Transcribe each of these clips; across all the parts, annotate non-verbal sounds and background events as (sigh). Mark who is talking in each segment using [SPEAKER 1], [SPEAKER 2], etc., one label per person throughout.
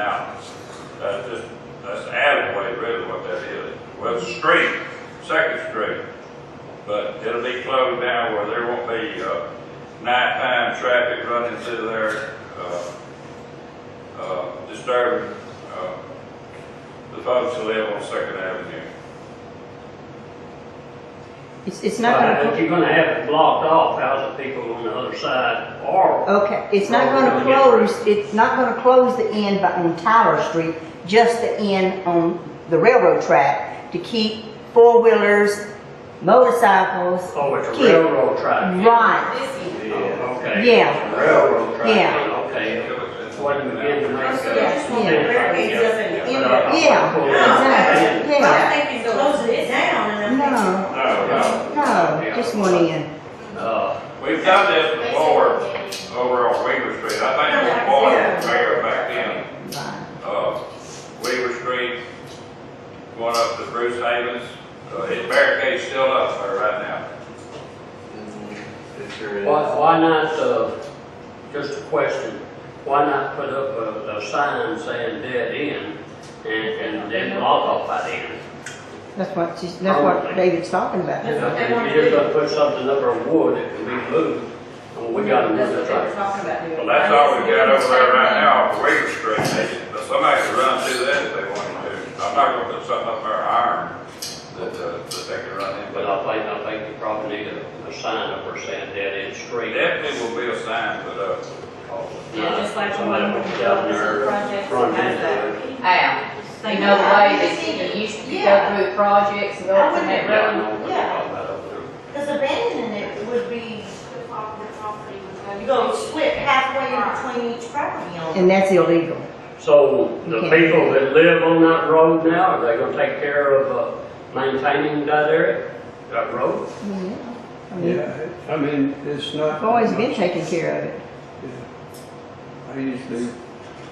[SPEAKER 1] Now, that's just, that's alleyway really what that is. Well, it's a street, Second Street, but it'll be closed down where there won't be, uh, nighttime traffic running through there, uh, uh, disturbing, uh, the folks who live on Second Avenue.
[SPEAKER 2] It's, it's not
[SPEAKER 3] Right, If
[SPEAKER 2] gonna,
[SPEAKER 3] you're gonna have it blocked off, how's the people on the other side are?
[SPEAKER 2] okay, it's
[SPEAKER 3] Oh,
[SPEAKER 2] not gonna close, it's not gonna close the end by- on Tyler Street, just the end on the railroad track to keep four-wheelers, motorcycles.
[SPEAKER 3] Oh, it's a
[SPEAKER 2] kids.
[SPEAKER 3] railroad track.
[SPEAKER 2] Right,
[SPEAKER 3] Oh, Okay.
[SPEAKER 2] yeah,
[SPEAKER 3] Railroad track.
[SPEAKER 2] Yeah.
[SPEAKER 3] Okay. Wasn't beginning to make
[SPEAKER 4] Oh, So
[SPEAKER 3] that.
[SPEAKER 4] that's one of the very things that's in the
[SPEAKER 3] But I- I-
[SPEAKER 2] Yeah, exactly.
[SPEAKER 4] But I think it's closing it down and I'm thinking,
[SPEAKER 2] no,
[SPEAKER 1] No, no,
[SPEAKER 2] no, just one end.
[SPEAKER 3] Uh,
[SPEAKER 1] we've done this before over on Weaver Street. I think it was Boyd, the mayor back then.
[SPEAKER 2] Right.
[SPEAKER 1] uh, Weaver Street, going up to Bruce Havens. Uh, His barricade's still up there right now.
[SPEAKER 5] It sure is.
[SPEAKER 3] why, why not, uh, just a question, why not put up a, a sign saying dead end and, and then block off that end?
[SPEAKER 2] That's what, she's- that's
[SPEAKER 3] Oh,
[SPEAKER 2] what David's talking about.
[SPEAKER 4] That's what they
[SPEAKER 3] If
[SPEAKER 4] wanna
[SPEAKER 3] you're just
[SPEAKER 4] do.
[SPEAKER 3] gonna put something up on wood, it can be moved, and we gotta move
[SPEAKER 4] that's what
[SPEAKER 3] it
[SPEAKER 4] they were
[SPEAKER 3] right.
[SPEAKER 4] talking about doing.
[SPEAKER 1] Well, that's all we got over there right now on Weaver Street. They- but Somebody could run through that if they wanted to. I'm not gonna put something up there iron that, uh, that they could run
[SPEAKER 3] But
[SPEAKER 1] into.
[SPEAKER 3] I think, I think you probably need a, a sign up there saying dead end street.
[SPEAKER 1] Definitely will be a sign, but, uh,
[SPEAKER 4] Yeah, just like the one with the
[SPEAKER 3] Down
[SPEAKER 4] buildings
[SPEAKER 3] there,
[SPEAKER 4] and projects,
[SPEAKER 3] front
[SPEAKER 4] that's
[SPEAKER 3] end there.
[SPEAKER 6] Al, you know, the way that you used to go through projects and go up in that
[SPEAKER 3] Yeah, I
[SPEAKER 6] road.
[SPEAKER 3] know what you're talking about up there.
[SPEAKER 4] Because abandoning it would be,
[SPEAKER 7] The prop- the property was owned.
[SPEAKER 4] you go split halfway in between each property owner.
[SPEAKER 2] And that's illegal.
[SPEAKER 3] So the
[SPEAKER 2] Okay.
[SPEAKER 3] people that live on that road now, are they gonna take care of, uh, maintaining that area, that road?
[SPEAKER 2] I mean,
[SPEAKER 8] Yeah, I mean, it's not.
[SPEAKER 2] I've always been taking care of it.
[SPEAKER 8] I usually,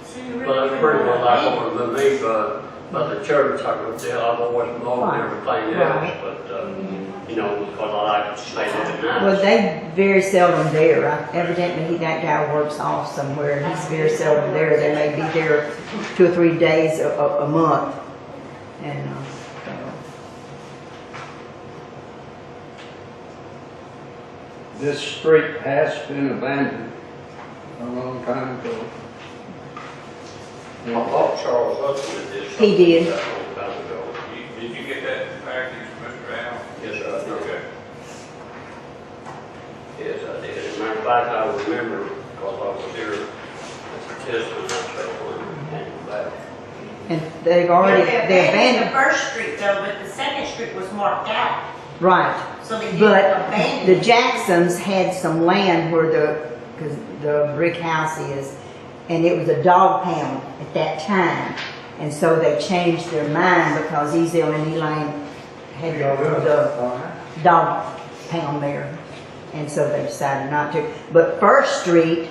[SPEAKER 4] So you really
[SPEAKER 3] But that's pretty
[SPEAKER 4] wouldn't
[SPEAKER 3] much like
[SPEAKER 4] want
[SPEAKER 3] over the me, but, but the church, I could tell, I've always loved everything else, but, uh, you know, because I like to stay there at
[SPEAKER 2] Well,
[SPEAKER 3] night.
[SPEAKER 2] they very seldom there. I- Evidently, he- that guy works off somewhere, and he's very seldom there. They may be there two or three days a, a, a month. And, uh, so,
[SPEAKER 8] this street has been abandoned a long time ago.
[SPEAKER 3] I thought Charles Hudson did something.
[SPEAKER 2] He did.
[SPEAKER 3] that a long time ago.
[SPEAKER 1] you- did you get that package, Mr. Al?
[SPEAKER 3] Yes, sir, I did.
[SPEAKER 1] Okay.
[SPEAKER 3] Yes, I did. As a matter of fact, I remember, because I was there as a testament, I said, when I came back.
[SPEAKER 2] And they've
[SPEAKER 4] to-
[SPEAKER 2] already,
[SPEAKER 4] But
[SPEAKER 2] they
[SPEAKER 4] The
[SPEAKER 2] abandoned,
[SPEAKER 4] first street though, but the second street was marked out,
[SPEAKER 2] right.
[SPEAKER 4] so they didn't
[SPEAKER 2] But
[SPEAKER 4] abandon.
[SPEAKER 2] the
[SPEAKER 4] it.
[SPEAKER 2] Jacksons had some land where the, cause the brick house is, and it was a dog pound at that time. And so they changed their mind because Ezel and Elaine had the dog pound there. And so they decided not to. But First Street,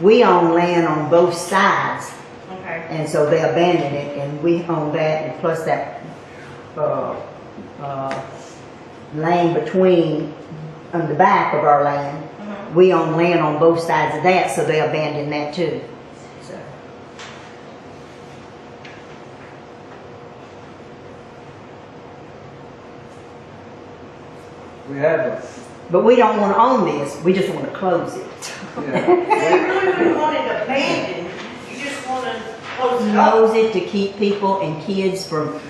[SPEAKER 2] we own land on both sides,
[SPEAKER 4] Okay.
[SPEAKER 2] and so they abandoned it, and we own that, and plus that, uh, uh, lane between, on the back of our land.
[SPEAKER 4] Mhm.
[SPEAKER 2] We own land on both sides of that, so they abandoned that too. So,
[SPEAKER 8] We have a,
[SPEAKER 2] But we don't wanna own this, we just wanna close it. (laughs)
[SPEAKER 8] yeah,
[SPEAKER 4] They really wouldn't want it abandoned, you just want to close it up.
[SPEAKER 2] Close it to keep people and kids from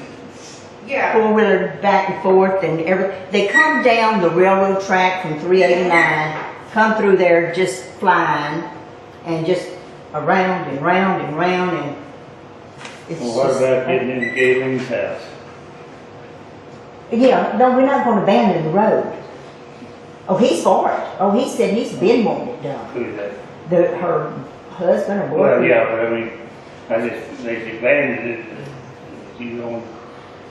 [SPEAKER 4] Yeah.
[SPEAKER 2] four wheeler back and forth and every, they come down the railroad track from three eighty-nine, come through there just flying and just around and round and round and it's
[SPEAKER 9] Well, what
[SPEAKER 2] just-
[SPEAKER 9] about getting into Galen's house?
[SPEAKER 2] Yeah, no, we're not gonna abandon the road. Oh, he's for it. Oh, he said he's been wanting it done.
[SPEAKER 9] Who's that?
[SPEAKER 2] The, her husband or
[SPEAKER 9] Well,
[SPEAKER 2] boyfriend.
[SPEAKER 9] yeah, but I mean, I just, they abandoned it, but you don't,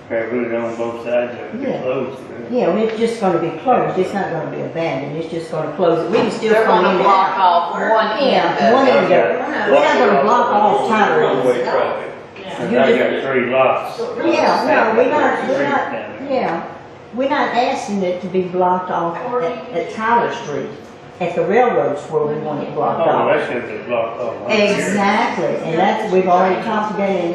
[SPEAKER 9] try to put it on both sides of
[SPEAKER 2] Yeah.
[SPEAKER 9] the roads. right?
[SPEAKER 2] Yeah, well, it's just gonna be closed. It's not gonna be abandoned. It's just gonna close it. We can still
[SPEAKER 6] They're
[SPEAKER 2] come in
[SPEAKER 6] gonna
[SPEAKER 2] and
[SPEAKER 6] block
[SPEAKER 2] out.
[SPEAKER 6] off one
[SPEAKER 2] Yeah, one
[SPEAKER 6] end
[SPEAKER 2] end of
[SPEAKER 9] Okay.
[SPEAKER 2] it. We're not gonna block off Tyler.
[SPEAKER 1] One-way traffic.
[SPEAKER 4] Yeah.
[SPEAKER 9] Cause I got three lots. Oh,
[SPEAKER 2] Yeah, no, we're not, we're
[SPEAKER 9] Street
[SPEAKER 2] not,
[SPEAKER 9] down there.
[SPEAKER 2] yeah, we're not asking it to be blocked off at, at Tyler Street. at the railroads where we want it blocked
[SPEAKER 9] Oh,
[SPEAKER 2] off.
[SPEAKER 9] that should be blocked off. huh?
[SPEAKER 2] Exactly, and that's, we've already talked about it, and